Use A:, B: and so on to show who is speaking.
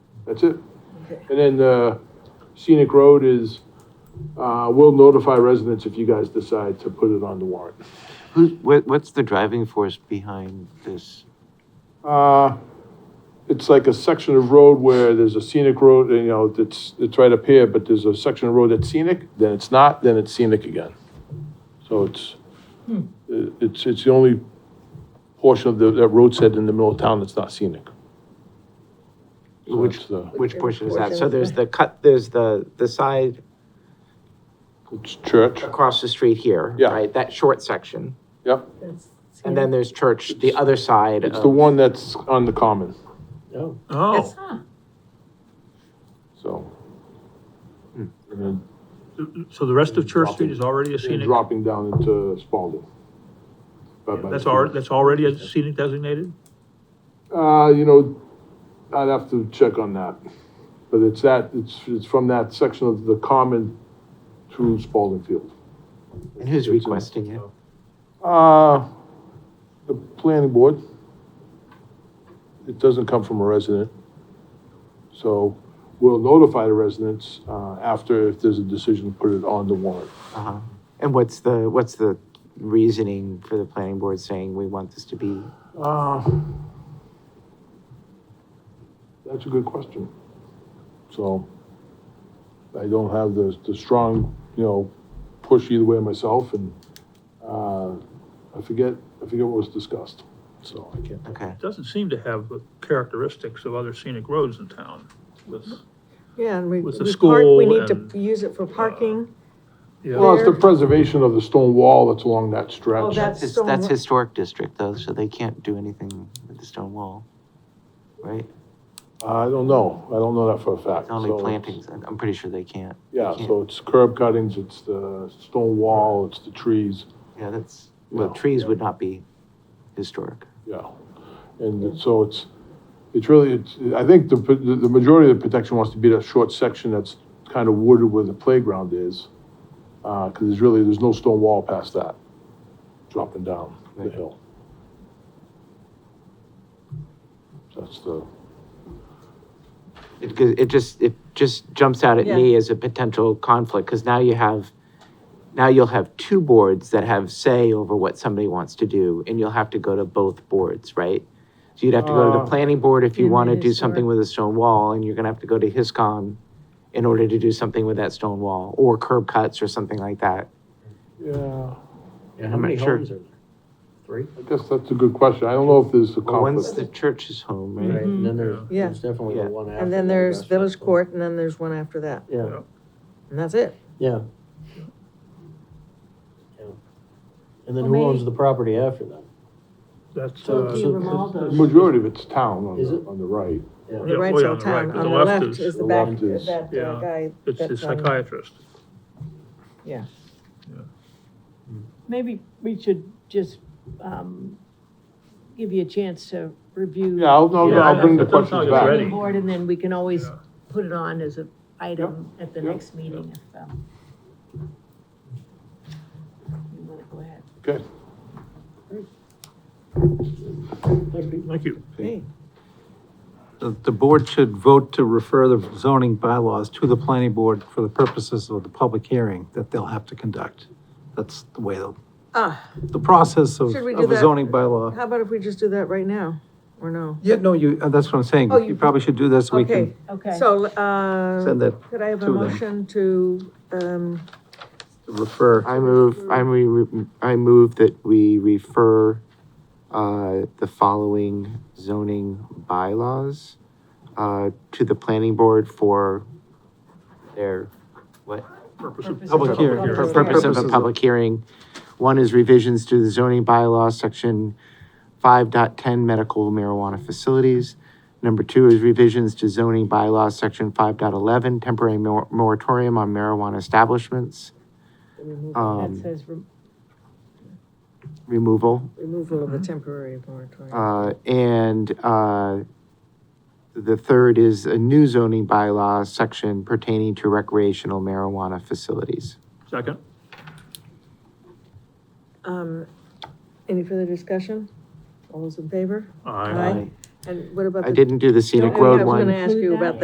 A: That's it. And then the scenic road is, uh, we'll notify residents if you guys decide to put it on the warrant.
B: Who's, what, what's the driving force behind this?
A: Uh, it's like a section of road where there's a scenic road, you know, that's, it's right up here, but there's a section of road that's scenic, then it's not, then it's scenic again. So it's, it- it's, it's the only portion of the, that road set in the middle of town that's not scenic. So
B: Which-
A: it's uh, the-
B: Which portion is that? So
C: Portion.
B: there's the cut, there's the, the side
A: It's church,
B: across the street here,
A: Yeah.
B: right? That short section.
A: yep.
C: That's-
B: And then there's church, the other side
A: It's the
B: of,
A: one that's on the common,
C: That's-
D: Oh,
C: huh.
A: so. And then
D: so the rest of Church Street is already a
A: and
D: scenic?
A: dropping down into Spalding. By- by the
D: That's
A: fields.
D: already, that's already a scenic designated?
A: Uh, you know, I'd have to check on that, but it's that, it's, it's from that section of the common through Spalding Field.
B: and
A: It's
B: who's
A: in-
B: requesting it?
A: Uh, the planning board. It doesn't come from a resident. So we'll notify the residents, uh, after if there's a decision to put it on the warrant.
B: Uh-huh. And what's the, what's the reasoning for the planning board saying we want this to be?
A: Uh, That's a good question. So I don't have the, the strong, you know, push either way myself and, uh, I forget, I forget what was discussed, so I can't.
B: Okay.
D: It doesn't seem to have the characteristics of other scenic roads in town with,
C: Yeah, and we,
D: With the
C: we park, we
D: school
C: need to
D: and, uh,
C: use it for parking.
A: Well,
D: yeah,
A: it's the preservation of the stone wall that's along that stretch.
C: Oh, that's
B: It's-
C: stone.
B: That's
C: wa-
B: historic district though, so they can't do anything with the stone wall, right?
A: I don't know, I don't know that for a fact.
B: It's only
A: so it's-
B: plantings, I'm I'm pretty sure they can't.
A: Yeah,
B: can't.
A: so it's curb cuttings, it's the stone wall, it's the trees.
B: Yeah, that's, well,
A: No.
B: trees would not be historic.
A: Yeah, and it- so it's, it's really, it's, I think the, the the majority of the protection wants to be that short section that's kind of wooded where the playground is. Uh, cause there's really, there's no stone wall past that, dropping down the
B: Right.
A: hill. That's the,
B: It, because it just, it just jumps out at me as a potential conflict, because now you have, now you'll have two boards that have say over what somebody wants to do, and you'll have to go to both boards, right? So you'd have to go to the
A: Uh,
B: planning board if you
C: And
B: want to
C: then
B: do something
C: historic.
B: with a stone wall, and you're gonna have to go to HISCOM in order to do something with that stone wall, or curb cuts or something like that.
A: yeah,
E: Yeah,
B: I'm
E: how many
B: not sure.
E: homes are there? Three?
A: I guess that's a good question, I don't know if there's a
B: Well, One's
A: conflict.
B: the church's home,
E: Right,
B: right?
E: and then there's,
C: Yeah.
E: there's definitely
B: Yeah.
E: the one after.
C: Mm-hmm. And then
E: that,
C: there's
E: that's
C: Village
E: one.
C: Court, and then there's one after that,
E: Yeah,
C: and that's it.
E: yeah. Yeah. And then
C: Well,
E: who owns
C: maybe-
E: the property after that?
D: that's,
E: So-
D: uh,
E: so-
A: The
C: Romaldo's.
A: majority of it's town on
E: Is
A: the,
E: it?
A: on the right.
C: The
D: Yeah,
C: right's
D: way
C: all
D: on the right,
C: town,
D: but
C: on
D: the
C: the
D: left
C: left
D: is-
C: is uh, the
A: the
C: back,
A: left is-
C: that uh,
D: yeah,
C: guy.
D: it's the
C: that's on-
D: psychiatrist.
F: Maybe we should just, um, give you a chance to review.
A: Yeah, I'll, I'll-
D: Yeah,
A: I'll bring the
D: that does sound
A: questions back.
D: ready.
F: the Board, and then we can always
D: Yeah.
F: put it on as an item at the
A: yeah,
F: next meeting if, um, you wanna go ahead.
A: Okay,
D: Thank you.
C: Hey,
G: The uh, the board should vote to refer the zoning bylaws to the planning board for the purposes of the public hearing that they'll have to conduct. That's the way, the
C: Ah,
G: the process of
C: Should we do
G: of a
C: that?
G: zoning bylaw.
C: how about if we just do that right now, or no?
G: Yeah, no, you, uh, that's what I'm saying.
C: Oh, you-
G: You probably should do this, we
C: Okay,
G: can
F: Okay.
C: so,
G: send
C: uh,
G: that,
C: could I have a
G: to them.
C: motion to, um,
G: refer.
B: I move,
G: Mm.
B: I move, I move that we refer, uh, the following zoning bylaws, uh, to the planning board for their, what?
F: Purpose of
G: Public hearing.
B: For
G: Public
B: purpose of
G: Purposes
B: a
G: of-
B: public hearing. One is revisions to the zoning bylaw, section five dot ten, medical marijuana facilities. Number two is revisions to zoning bylaw, section five dot eleven, temporary mor- moratorium on marijuana establishments.
F: That
B: Um,
F: says, re-
B: removal.
C: removal of the temporary moratorium?
B: Uh, and, uh, the third is a new zoning bylaw section pertaining to recreational marijuana facilities.
D: Second?
C: Um, any further discussion? All those in favor?
D: Aye.
C: Aye. And what about
B: I
C: the
B: didn't do the scenic
C: Oh, yeah,
B: road
C: I was
B: one.
C: gonna ask you about